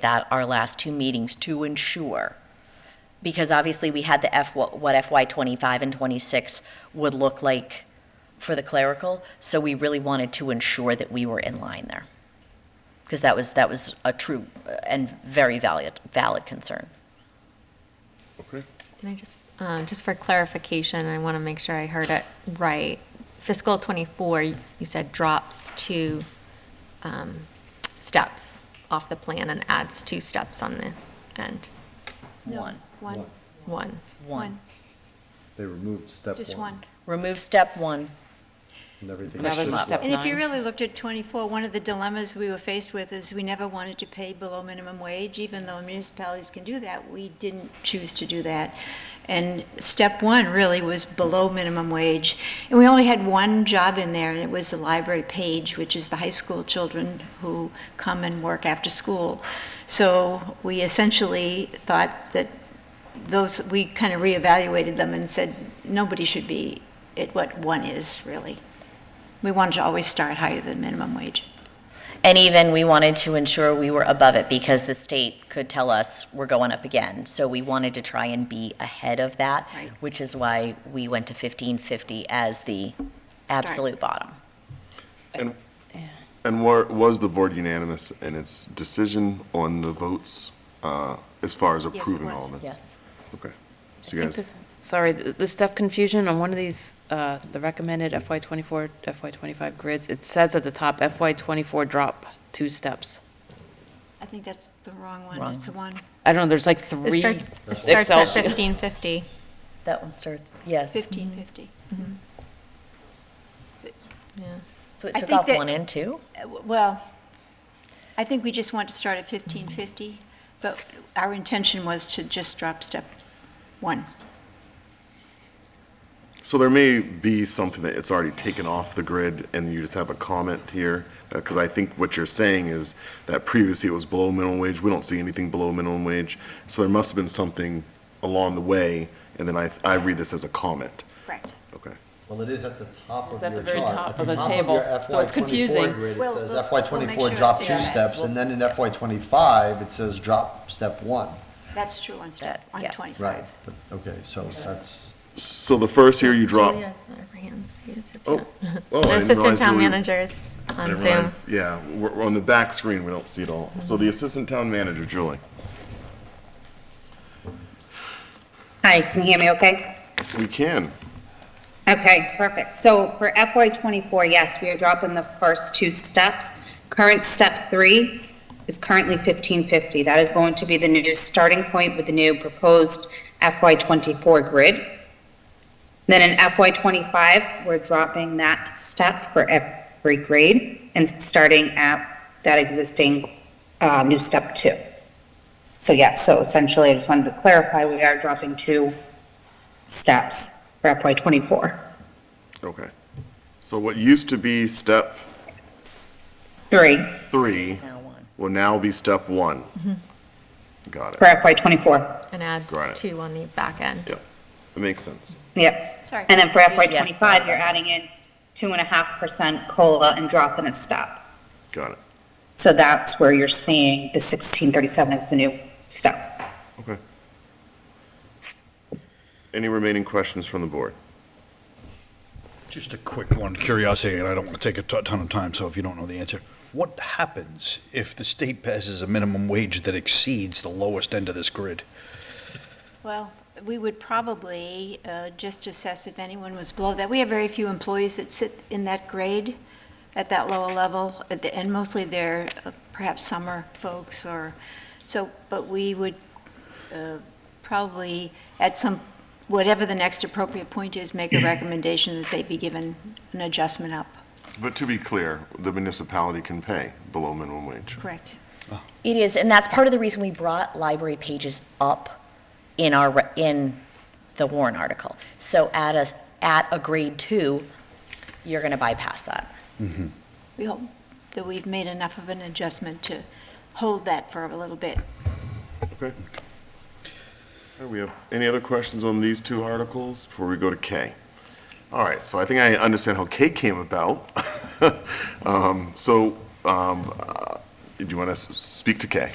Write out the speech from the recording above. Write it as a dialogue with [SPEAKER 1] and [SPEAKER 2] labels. [SPEAKER 1] that our last two meetings to ensure, because obviously we had the F, what FY '25 and '26 would look like for the clerical, so we really wanted to ensure that we were in line there. Because that was, that was a true and very valid, valid concern.
[SPEAKER 2] Okay.
[SPEAKER 3] Can I just, um, just for clarification, I want to make sure I heard it right. Fiscal '24, you said drops two um, steps off the plan and adds two steps on the end,
[SPEAKER 1] One,
[SPEAKER 4] One,
[SPEAKER 3] one.
[SPEAKER 1] one.
[SPEAKER 2] They removed step one.
[SPEAKER 4] just one.
[SPEAKER 1] Remove step one,
[SPEAKER 2] And everything
[SPEAKER 5] Now
[SPEAKER 2] is
[SPEAKER 5] there's
[SPEAKER 2] just
[SPEAKER 5] step
[SPEAKER 4] And if you
[SPEAKER 5] nine.
[SPEAKER 4] really looked at 24, one of the dilemmas we were faced with is we never wanted to pay below minimum wage, even though municipalities can do that. We didn't choose to do that. And step one really was below minimum wage. And we only had one job in there, and it was the library page, which is the high school children who come and work after school. So we essentially thought that those, we kind of reevaluated them and said, nobody should be at what one is, really. We wanted to always start higher than minimum wage.
[SPEAKER 1] And even, we wanted to ensure we were above it because the state could tell us we're going up again. So we wanted to try and be ahead of that,
[SPEAKER 4] Right.
[SPEAKER 1] which is why we went to 1550 as the absolute bottom.
[SPEAKER 6] And wa- was the board unanimous in its decision on the votes uh, as far as
[SPEAKER 4] it
[SPEAKER 6] approving all
[SPEAKER 4] was.
[SPEAKER 6] this?
[SPEAKER 1] Yes.
[SPEAKER 6] Okay. So you guys,
[SPEAKER 5] Sorry, th- the step confusion on one of these, uh, the recommended FY '24, FY '25 grids, it says at the top FY '24 drop two steps.
[SPEAKER 4] I think that's the wrong one.
[SPEAKER 1] Wrong.
[SPEAKER 4] It's the one,
[SPEAKER 5] I don't know, there's like
[SPEAKER 3] It
[SPEAKER 5] three
[SPEAKER 3] starts, it starts
[SPEAKER 5] Excel
[SPEAKER 3] at
[SPEAKER 5] sheets.
[SPEAKER 3] 1550.
[SPEAKER 1] That one starts, yes.
[SPEAKER 4] 1550.
[SPEAKER 3] Yeah.
[SPEAKER 1] So it
[SPEAKER 4] I
[SPEAKER 1] took
[SPEAKER 4] think
[SPEAKER 1] off
[SPEAKER 4] that-
[SPEAKER 1] one and two?
[SPEAKER 4] Uh, w- Well, I think we just want to start at 1550, but our intention was to just drop step one.
[SPEAKER 6] so there may be something that it's already taken off the grid and you just have a comment here. Because I think what you're saying is that previously it was below minimum wage. We don't see anything below minimum wage. So there must have been something along the way. And then I, I read this as a comment.
[SPEAKER 4] Correct.
[SPEAKER 6] Okay.
[SPEAKER 2] Well, it is at the top of
[SPEAKER 5] It's at
[SPEAKER 2] your
[SPEAKER 5] the very
[SPEAKER 2] chart.
[SPEAKER 5] top of the table, so it's confusing.
[SPEAKER 2] At the
[SPEAKER 4] Well,
[SPEAKER 2] top of your
[SPEAKER 4] we'll-
[SPEAKER 2] FY
[SPEAKER 4] we'll make
[SPEAKER 2] twenty-four grid,
[SPEAKER 4] sure
[SPEAKER 2] it says FY twenty-four drop
[SPEAKER 4] it's
[SPEAKER 2] two
[SPEAKER 4] there.
[SPEAKER 2] steps, and then in FY twenty-five, it says drop step one.
[SPEAKER 4] That's true on step,
[SPEAKER 1] That-
[SPEAKER 4] on
[SPEAKER 1] yes.
[SPEAKER 4] 25.
[SPEAKER 2] Right, but, okay, so that's,
[SPEAKER 6] So the first year you drop.
[SPEAKER 3] Julia has her hands raised, if you
[SPEAKER 6] Oh,
[SPEAKER 3] want.
[SPEAKER 6] oh, I didn't
[SPEAKER 3] Assistant
[SPEAKER 6] realize
[SPEAKER 3] town
[SPEAKER 6] Julie-
[SPEAKER 3] managers on
[SPEAKER 6] And
[SPEAKER 3] Zoom.
[SPEAKER 6] Rise- Yeah, we're, we're on the back screen, we don't see it all. So the assistant town manager, Julie.
[SPEAKER 7] Hi, can you hear me okay?
[SPEAKER 6] We can.
[SPEAKER 7] Okay, perfect. So for FY '24, yes, we are dropping the first two steps. Current step three is currently 1550. That is going to be the new starting point with the new proposed FY '24 grid. Then in FY '25, we're dropping that step for every grade and starting at that existing uh, new step two. So yes, so essentially, I just wanted to clarify, we are dropping two steps for FY '24.
[SPEAKER 6] Okay. So what used to be step
[SPEAKER 7] Three
[SPEAKER 6] three
[SPEAKER 1] Now one.
[SPEAKER 6] will now be step one. Got
[SPEAKER 7] for
[SPEAKER 6] it.
[SPEAKER 7] FY '24.
[SPEAKER 3] And
[SPEAKER 6] Got it.
[SPEAKER 3] adds two on the back end.
[SPEAKER 6] Yep, that makes sense.
[SPEAKER 7] Yep.
[SPEAKER 4] Sorry.
[SPEAKER 7] And then for FY
[SPEAKER 1] Yes.
[SPEAKER 7] '25, you're adding in two and a half percent COLA and dropping a step.
[SPEAKER 6] Got it.
[SPEAKER 7] So that's where you're seeing the 1637 is the new step.
[SPEAKER 6] Okay. Any remaining questions from the board?
[SPEAKER 8] Just a quick one, curiosity, and I don't want to take a ton ton of time, so if you don't know the answer. What happens if the state passes a minimum wage that exceeds the lowest end of this grid?
[SPEAKER 4] Well, we would probably uh, just assess if anyone was below that. We have very few employees that sit in that grade at that lower level, at the- and mostly they're uh, perhaps summer folks or, so, but we would uh, probably, at some, whatever the next appropriate point is, make a recommendation that they be given an adjustment up.
[SPEAKER 6] But to be clear, the municipality can pay below minimum wage.
[SPEAKER 4] Correct.
[SPEAKER 1] It is, and that's part of the reason we brought library pages up in our, re- in the Warren article. So at a, at a grade two, you're going to bypass that.
[SPEAKER 4] We hope that we've made enough of an adjustment to hold that for a little bit.
[SPEAKER 6] Okay. Okay, We have, any other questions on these two articles before we go to K? All right, so I think I understand how K came about. Um, So, um, uh, do you want to s- speak to K?